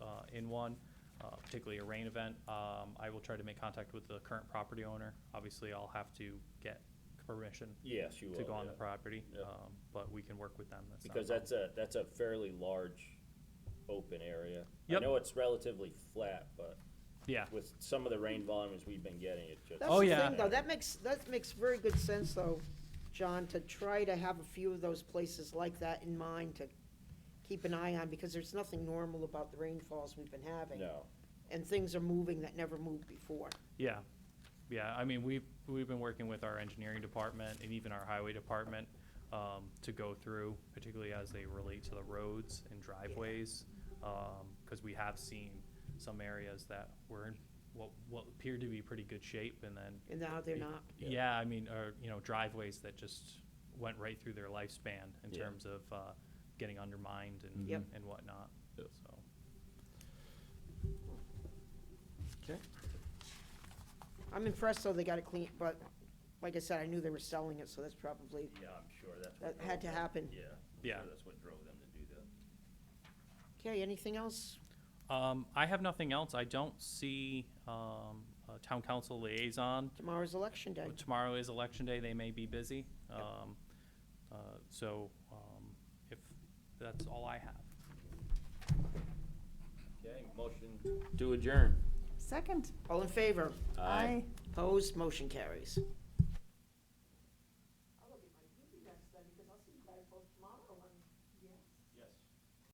in one, uh, particularly a rain event. Um, I will try to make contact with the current property owner. Obviously, I'll have to get permission Yes, you will. to go on the yeah. property, Yep. um, but we can work with them. not a Because problem. that's a, that's a fairly large open area. I Yep. know it's relatively flat, but Yeah, with some of the rain volumes we've been getting, it just. Oh, That's the yeah. thing, though, that makes, that makes very good sense, though, John, to try to have a few of those places like that in mind to keep an eye on, because there's nothing normal about the rainfalls we've been having. No, And things are moving that never moved before. yeah, yeah. I mean, we've, we've been working with our engineering department and even our highway department um, to go through, particularly as they relate to the roads and driveways. Because we have seen some areas that were in what, what appeared to be pretty good shape and then And now they're not, Yeah. Yeah, I mean, or, you know, driveways that just went right through their lifespan in Yeah. terms of, uh, getting undermined and, Yep. and whatnot, so. Okay. I'm impressed, though, they got it clean, but, like I said, I knew they were selling it, so that's probably, yeah, I'm sure that's that what. had to drove them. happen. Yeah. I'm Yeah. sure That's what drove them to do that. Okay, anything else? Um, I have nothing else. I don't see, um, a town council liaison. Tomorrow's election day. Tomorrow is election day. They may be busy. Yep. Um, uh, so, um, if, that's all I have. Okay, motion To adjourn. Second. All in favor? Aye. Opposed? Motion carries.